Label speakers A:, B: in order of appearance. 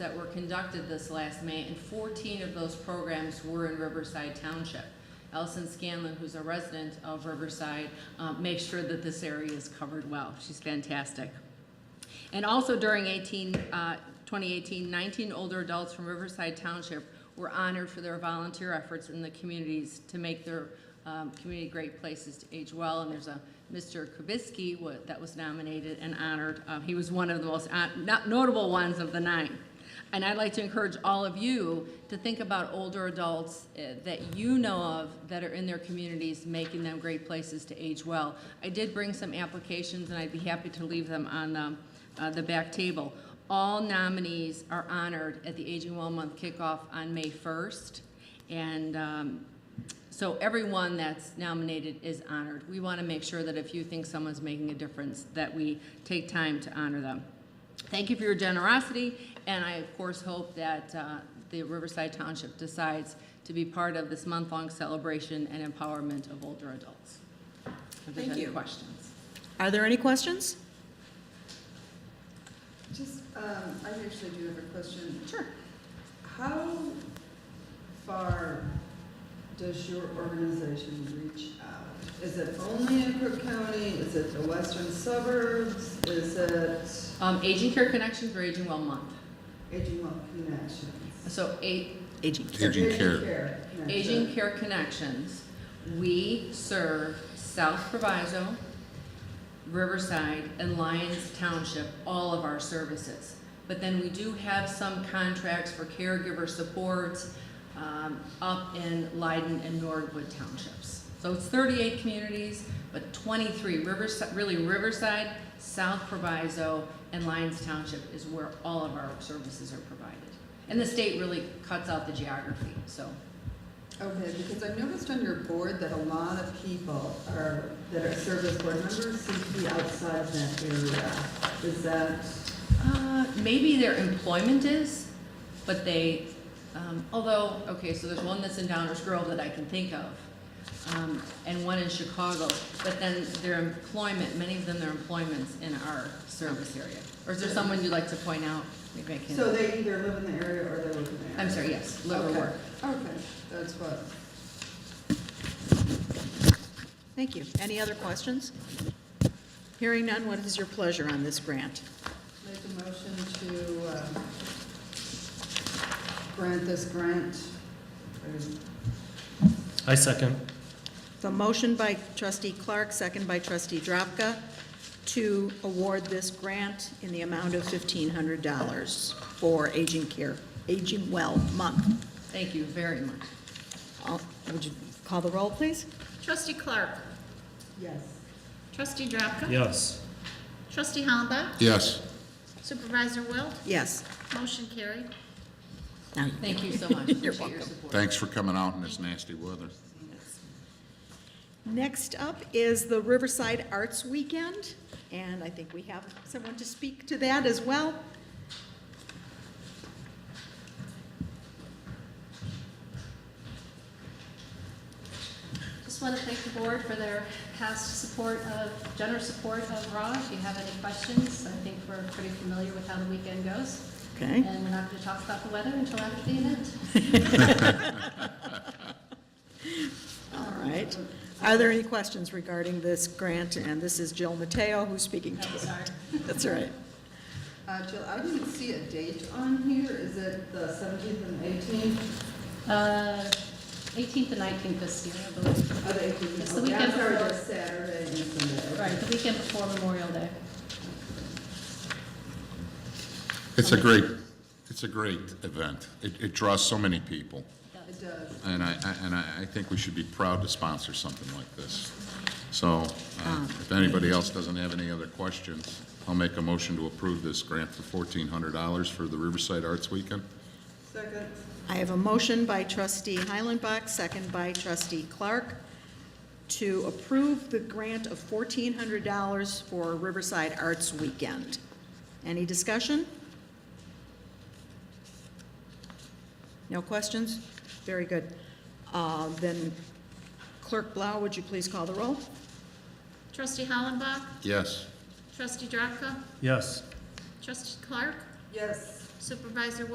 A: that were conducted this last May, and 14 of those programs were in Riverside Township. Allison Scanlon, who's a resident of Riverside, uh, makes sure that this area is covered well. She's fantastic. And also during 18, uh, 2018, 19 older adults from Riverside Township were honored for their volunteer efforts in the communities to make their um, community great places to age well. And there's a Mr. Kubisky wa- that was nominated and honored. Uh, He was one of the most hon- not- notable ones of the nine. And I'd like to encourage all of you to think about older adults eh, that you know of that are in their communities, making them great places to age well. I did bring some applications, and I'd be happy to leave them on the, uh, the back table. All nominees are honored at the Aging Well Month kickoff on May 1st, and um, so everyone that's nominated is honored. We want to make sure that if you think someone's making a difference, that we take time to honor them. Thank you for your generosity, and I, of course, hope that uh, the Riverside Township decides to be part of this month-long celebration and empowerment of older adults. If there's
B: Thank
A: any
B: you.
A: questions.
B: Are there any questions?
C: Just, um, I actually do have a question.
A: Sure.
C: How far does your organization reach out? Is it only in Crook County? Is it the western suburbs? Is it
A: Um, Aging Care Connections for Aging Well Month.
C: Aging Well Connections?
A: So A-
B: Aging
D: Aging Care.
C: Connection.
A: Aging Care Connections, we serve South Proviso, Riverside, and Lyons Township, all of our services. But then we do have some contracts for caregiver support um, up in Leiden and Norwood Townships. So it's 38 communities, but 23, Riverside, really Riverside, South Proviso, and Lyons Township is where all of our services are provided. And the state really cuts out the geography, so
C: Okay, because I noticed on your board that a lot of people are, that are service board members seem to be outside of that area. Is that,
A: Uh, Maybe their employment is, but they, um, although, okay, so there's one that's in Downers Grove that I can think of, um, and one in Chicago, but then their employment, many of them, their employment's in our service area. Or is there someone you'd like to point out? Maybe I
C: so
A: can,
C: they either live in the area or they live in the area?
A: I'm sorry, yes, live or
C: Okay.
A: work.
C: Okay, that's what.
B: Thank you. Any other questions? Hearing none, what is your pleasure on this grant?
C: Make a motion to uh, grant this grant.
E: I second.
B: The motion by trustee Clark, second by trustee Drapka, to award this grant in the amount of $1,500 for Aging Care, Aging Well Month.
A: Thank you very much.
B: All- Would you call the roll, please?
F: Trustee Clark.
C: Yes.
F: Trustee Drapka.
E: Yes.
F: Trustee Hollenbach.
D: Yes,
F: Supervisor Wilt.
B: Yes.
F: Motion carried.
B: Now you-
A: Thank you so much. Appreciate your
B: welcome.
A: support.
D: thanks for coming out in this nasty weather.
B: Next up is the Riverside Arts Weekend, and I think we have someone to speak to that as well.
G: Just want to thank the board for their past support of, generous support of RAW. If you have any questions, I think we're pretty familiar with how the weekend goes.
B: Okay.
G: And we're not going to talk about the weather until after the event.
B: All right. Are there any questions regarding this grant? And this is Jill Mateo who's speaking to
G: I'm
B: us.
G: sorry.
B: That's all right.
C: Uh, Jill, I didn't see a date on here. Is it the 17th and 18th?
G: Uh, 18th and 19th this year, I believe.
C: Oh, the 18th.
G: It's the
C: Okay, I'm
G: weekend
C: sorry,
G: before.
C: that's Saturday and Sunday.
G: Right, the weekend before Memorial Day.
D: It's a great, it's a great event. It, it draws so many people,
C: It does.
D: and I, I- and I, I think we should be proud to sponsor something like this. So, uh, if anybody else doesn't have any other questions, I'll make a motion to approve this grant for fourteen hundred dollars for the Riverside Arts Weekend.
C: Second.
B: I have a motion by trustee Heilenbach, second by trustee Clark, to approve the grant of $1,400 for Riverside Arts Weekend. Any discussion? No questions? Very good. Uh, Then Clerk Blau, would you please call the roll?
F: Trustee Hollenbach.
D: Yes,
F: Trustee Drapka.
E: Yes.
F: Trustee Clark.
C: Yes.
F: Supervisor